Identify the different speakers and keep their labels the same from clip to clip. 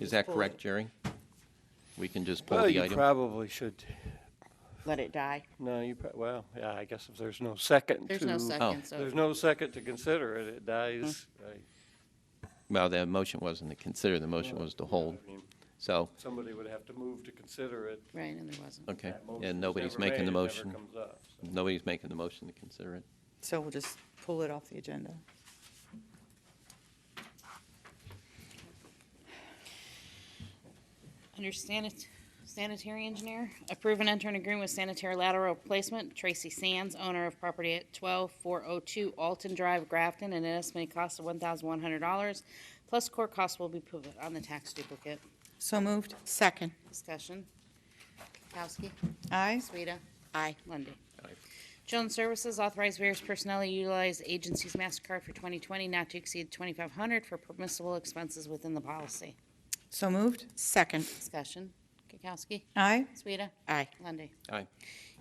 Speaker 1: Is that
Speaker 2: pull
Speaker 1: correct,
Speaker 2: it.
Speaker 1: Jerry? We can just pull
Speaker 3: Well,
Speaker 1: the
Speaker 3: you
Speaker 1: item?
Speaker 3: probably should,
Speaker 2: Let it die.
Speaker 3: no, you, prob- well, yeah, I guess if there's no second to. oh.
Speaker 4: There's no second, so Mm-hmm.
Speaker 3: There's no second to consider it, it dies. I-
Speaker 1: Well, the motion wasn't to consider, the motion was to hold.
Speaker 3: I mean,
Speaker 1: So,
Speaker 3: Somebody would have to move to consider it.
Speaker 4: right, and there wasn't.
Speaker 1: okay,
Speaker 3: That motion was
Speaker 1: and nobody's
Speaker 3: never
Speaker 1: making the
Speaker 3: made, it never
Speaker 1: motion.
Speaker 3: comes up, so.
Speaker 1: Nobody's making the motion to consider it.
Speaker 5: So we'll just pull it off the agenda.
Speaker 4: Under sanit- sanitary engineer, approve and enter an agreement with sanitary lateral replacement, Tracy Sands, owner of property at twelve four oh two Alton Drive, Grafton, at an estimated cost of one thousand one hundred dollars, plus court costs will be put on the tax duplicate.
Speaker 5: So moved.
Speaker 4: Second. Discussion. Kowski.
Speaker 5: Aye.
Speaker 4: Sueda. Aye. Lundy. Children's Services authorized various personnel to utilize agency's MasterCard for 2020 not to exceed 2,500 for permissible expenses within the policy.
Speaker 5: So moved. Second.
Speaker 4: Discussion. Kukowski.
Speaker 5: Aye.
Speaker 4: Sueda. Aye. Lundy.
Speaker 1: Aye.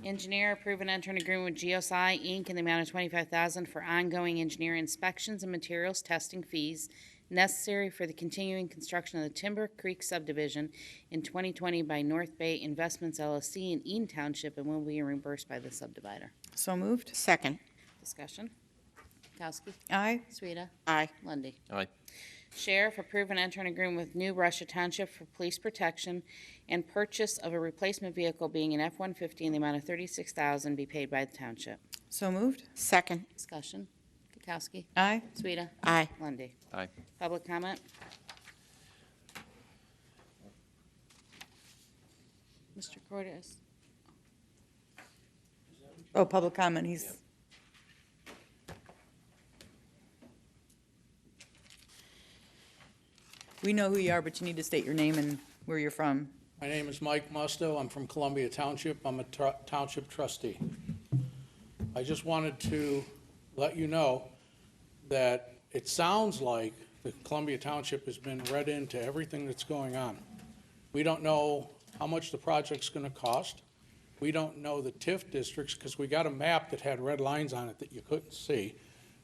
Speaker 4: Engineer approve and enter an agreement with GSI Inc. in the amount of 25000 for ongoing engineer inspections and materials testing fees necessary for the continuing construction of the Timber Creek subdivision in 2020 by North Bay Investments LLC in Eaton Township and will be reimbursed by the subdivider.
Speaker 5: So moved. Second.
Speaker 4: Discussion. Kukowski.
Speaker 5: Aye.
Speaker 4: Sueda. Aye. Lundy.
Speaker 1: Aye.
Speaker 4: Sheriff, approve and enter an agreement with New Russia Township for police protection and purchase of a replacement vehicle being an F-150 in the amount of thirty-six thousand be paid by the township.
Speaker 5: So moved. Second.
Speaker 4: Discussion. Kukowski.
Speaker 5: Aye.
Speaker 4: Sueda.
Speaker 5: Aye.
Speaker 4: Lundy.
Speaker 1: Aye.
Speaker 4: Public comment? Mr. Cortez.
Speaker 5: Oh, public comment, he's, we know who you are, but you need to state your name and where you're from.
Speaker 6: My name is Mike Musto. I'm from Columbia Township. I'm a tr- township trustee. I just wanted to let you know that it sounds like the Columbia Township has been read into everything that's going on. We don't know how much the project's going to cost. We don't know the TIF districts because we got a map that had red lines on it that you couldn't see.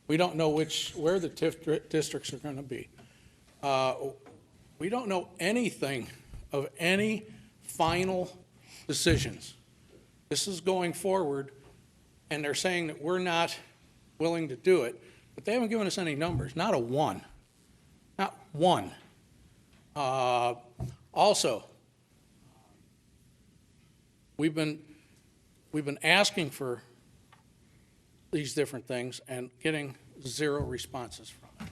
Speaker 6: We don't know which, where the TIF dri- districts are going to be. Uh, we don't know anything of any final decisions. This is going forward, and they're saying that we're not willing to do it, but they haven't given us any numbers, not a one, not one. Uh, Also, we've been, we've been asking for these different things and getting zero responses from them.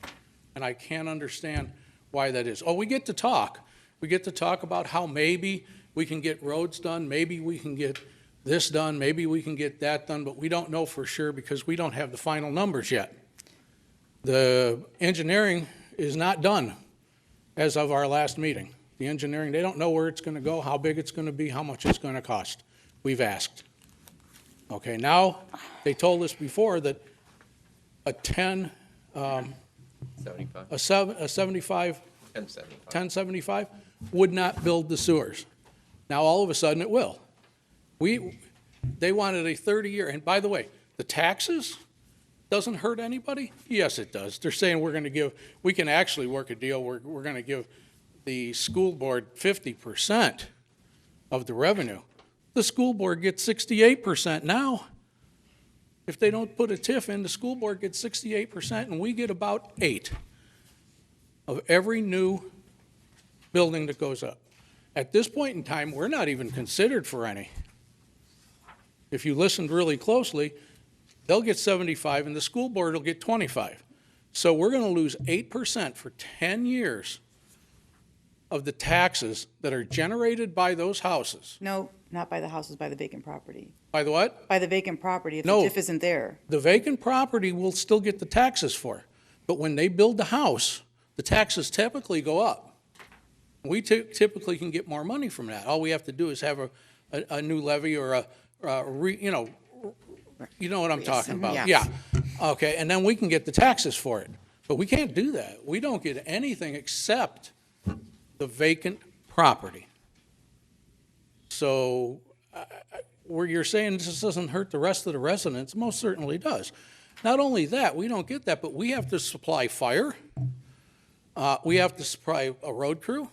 Speaker 6: And I can't understand why that is. Oh, we get to talk. We get to talk about how maybe we can get roads done, maybe we can get this done, maybe we can get that done, but we don't know for sure because we don't have the final numbers yet. The engineering is not done as of our last meeting. The engineering, they don't know where it's going to go, how big it's going to be, how much it's going to cost. We've asked. Okay, now, they told us before that a 10, um,
Speaker 1: Seventy-five.
Speaker 6: a seven, a 75
Speaker 1: Ten seventy-five.
Speaker 6: 1075 would not build the sewers. Now, all of a sudden, it will. We, they wanted a 30-year, and by the way, the taxes doesn't hurt anybody? Yes, it does. They're saying we're going to give, we can actually work a deal, we're, we're going to give the school board 50% of the revenue. The school board gets 68% now. If they don't put a TIF in, the school board gets 68%, and we get about eight of every new building that goes up. At this point in time, we're not even considered for any. If you listened really closely, they'll get 75 and the school board will get 25. So we're going to lose 8% for 10 years of the taxes that are generated by those houses.
Speaker 5: No, not by the houses, by the vacant property.
Speaker 6: By the what?
Speaker 5: By the vacant property, if the
Speaker 6: No.
Speaker 5: TIF isn't there.
Speaker 6: The vacant property will still get the taxes for, but when they build the house, the taxes typically go up. We ty- typically can get more money from that. All we have to do is have a, a, a new levy or a, a re, you know, you know what I'm talking about? Yeah. Okay, and then we can get the taxes for it. But we can't do that. We don't get anything except the vacant property. So where you're saying this doesn't hurt the rest of the residents, most certainly does. Not only that, we don't get that, but we have to supply fire. Uh, we have to supply a road crew.